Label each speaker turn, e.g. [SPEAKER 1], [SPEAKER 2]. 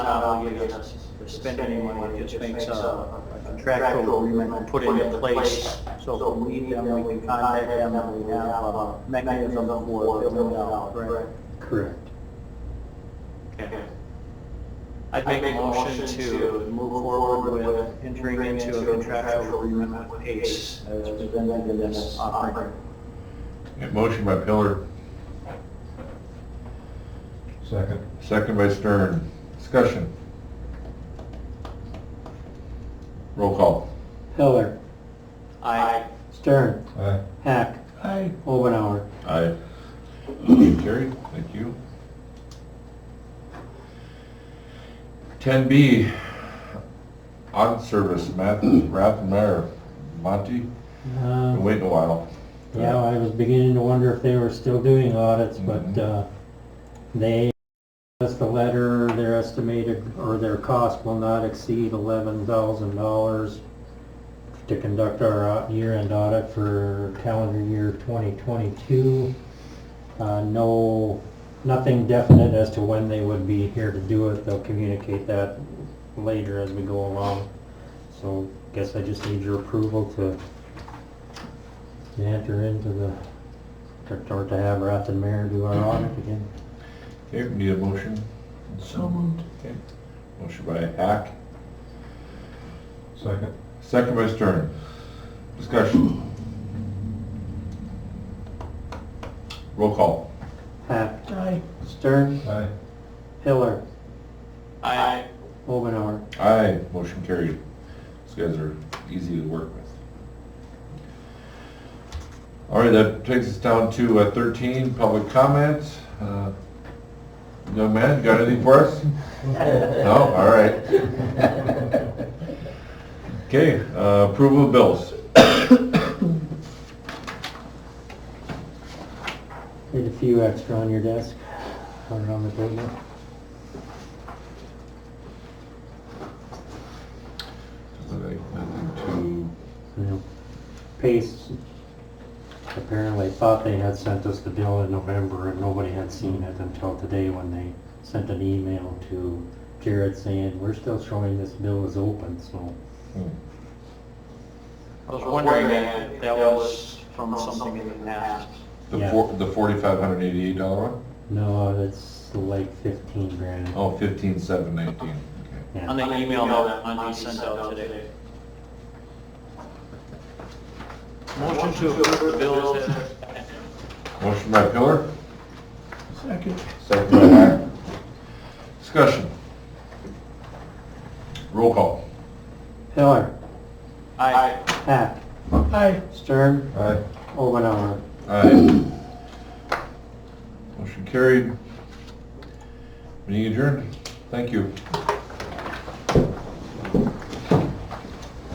[SPEAKER 1] not obligated to spend any money, it just makes a contractual agreement put it in place. So if we need them, we can contact them, and we have a mechanism for filling out, correct?
[SPEAKER 2] Correct.
[SPEAKER 1] Okay. I'd make a motion to move forward with entering into a contractual agreement with ACE as presented in this offering.
[SPEAKER 3] Okay, Motion by Pillar,
[SPEAKER 2] Second.
[SPEAKER 3] second by Stern. Discussion. Roll call.
[SPEAKER 2] Heller.
[SPEAKER 1] Aye.
[SPEAKER 2] Stern.
[SPEAKER 3] Aye.
[SPEAKER 2] Hack.
[SPEAKER 3] Aye.
[SPEAKER 2] Omenauer.
[SPEAKER 3] Aye. Motion carried. Thank you. Ten B, audit service, Matt, Rathmeyer, Monty. Been
[SPEAKER 4] Um,
[SPEAKER 3] waiting a while.
[SPEAKER 4] Yeah, I was beginning to wonder if they were still doing audits, but
[SPEAKER 3] Mhm.
[SPEAKER 4] uh, they, us the letter, their estimated, or their cost will not exceed $11,000 to conduct our au- year-end audit for calendar year 2022. Uh, No, nothing definite as to when they would be here to do it. They'll communicate that later as we go along. So guess I just need your approval to to enter into the, or- or to have Rath and Mayor do our audit again.
[SPEAKER 3] Okay, we need a motion. So moved. Okay. Motion by Hack,
[SPEAKER 2] Second.
[SPEAKER 3] second by Stern. Discussion. Roll call.
[SPEAKER 4] Hack. Stern.
[SPEAKER 2] Aye.
[SPEAKER 4] Hiller.
[SPEAKER 1] Aye.
[SPEAKER 4] Omenauer.
[SPEAKER 3] Aye, motion carried. These guys are easy to work with. All right, that takes us down to uh, thirteen, public comments. Uh, Young man, you got anything for us? No, all right. Okay, uh, approval of bills.
[SPEAKER 4] Need a few extra on your desk, or on the table.
[SPEAKER 3] Nothing
[SPEAKER 4] You know, Pace apparently thought they had sent us the bill in November and nobody had seen it until today when they sent an email to Jared saying, we're still showing this bill is open, so.
[SPEAKER 1] I was wondering if that was from something in the past.
[SPEAKER 3] to- The
[SPEAKER 4] Yeah.
[SPEAKER 3] four, the forty-five hundred eighty-eight dollar one?
[SPEAKER 4] No, that's like fifteen grand.
[SPEAKER 3] Oh, fifteen, seven, nineteen, okay.
[SPEAKER 4] Yeah.
[SPEAKER 1] On the email that Monty sent out today. Motion to approve the bills as
[SPEAKER 3] Motion by Pillar? Second. Second by Hack. Discussion. Roll call.
[SPEAKER 4] Hiller.
[SPEAKER 1] Aye.
[SPEAKER 4] Hack.
[SPEAKER 2] Aye.
[SPEAKER 4] Stern.
[SPEAKER 3] Aye.
[SPEAKER 4] Omenauer.
[SPEAKER 3] Aye. Motion carried. Meeting adjourned. Thank you.